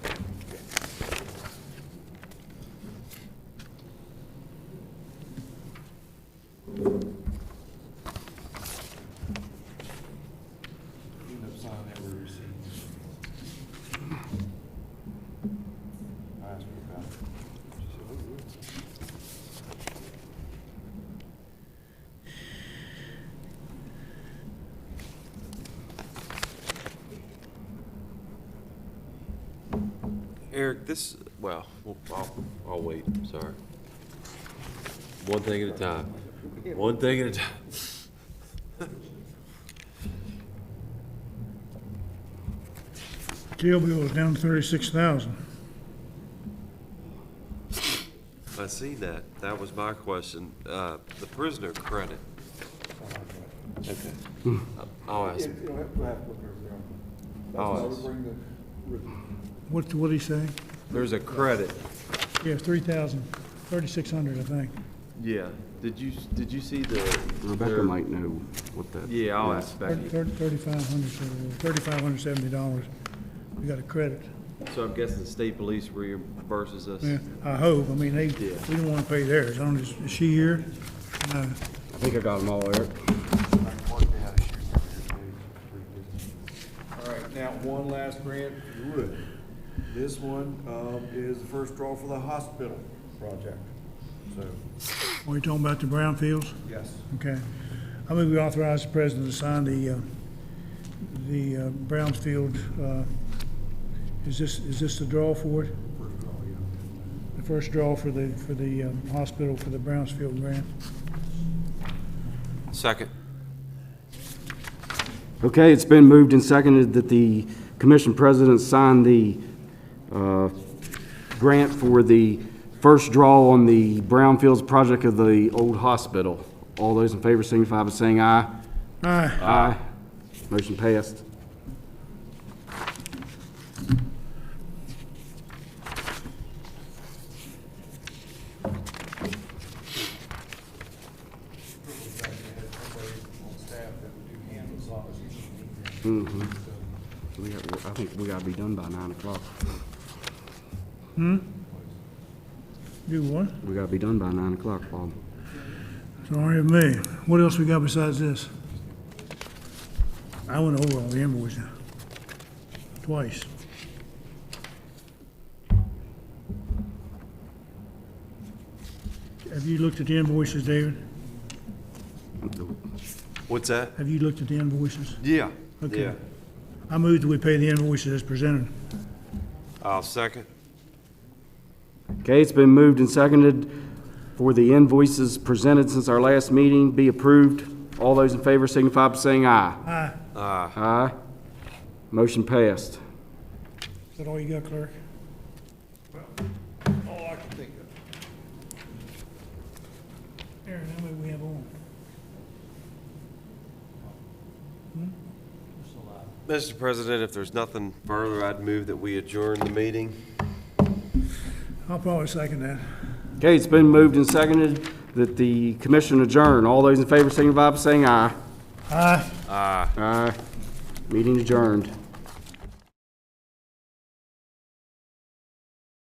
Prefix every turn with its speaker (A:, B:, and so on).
A: Eric, this, well, I'll, I'll wait, sorry. One thing at a time, one thing at a time.
B: Jail bill is down thirty-six thousand.
A: I seen that, that was my question, uh, the prisoner credit. Okay. I'll ask,
C: It- It'll have to have to look around. That's
A: Oh,
C: why
A: it's-
C: we bring the, with-
B: What, what'd he say?
D: There's a credit.
B: Yeah, three thousand, thirty-six hundred, I think.
D: Yeah. Did you, did you see the?
E: Rebecca
D: their-
E: might know what that.
D: Yeah, I'll
E: is.
D: ask Becky.
B: Thirty-five hundred, thirty-five hundred seventy dollars. We got a credit.
D: So I'm guessing the state police reimburses us.
B: Yeah, I hope. I mean, they,
D: Yeah.
B: we don't wanna pay theirs. I don't, is is she here? Uh, No.
E: I think I got them all, Eric.
C: All right, now, one last grant, if you would. This one, um, is the first draw for the hospital project, so,
B: Are you talking about the brownfields?
C: yes.
B: Okay. I move we authorize the president to sign the, uh, the uh, Brownsfield, uh, is this, is this the draw for it?
C: First draw, yeah.
B: The first draw for the, for the um, hospital for the Brownsfield grant?
A: second,
E: Okay, it's been moved and seconded that the commission president sign the uh, grant for the first draw on the Brownfields project of the old hospital. All those in favor signify by saying aye.
B: Aye.
E: Aye. Motion passed.
C: Back to head somebody on staff that would do handles on it, So,
E: We got, I think we gotta be done by nine o'clock.
B: Do what?
E: We gotta be done by nine o'clock, Bob.
B: Sorry of me. What else we got besides this? I went over all the invoices twice. Have you looked at the invoices, David?
A: what's that?
B: Have you looked at the invoices?
A: Yeah.
B: Okay.
A: Yeah.
B: I moved that we pay the invoices as presented.
A: I'll second,
E: Okay, it's been moved and seconded for the invoices presented since our last meeting be approved. All those in favor signify by saying aye.
A: uh,
B: Aye.
E: Aye. Motion passed.
B: Is that all you got, clerk?
C: All I can think of.
B: Aaron, how many we have on?
A: Mr. President, if there's nothing further, I'd move that we adjourn the meeting.
B: I'll probably second that.
E: Okay, it's been moved and seconded that the commission adjourn. All those in favor signify by saying aye.
B: Aye.
E: Aye. Meeting adjourned.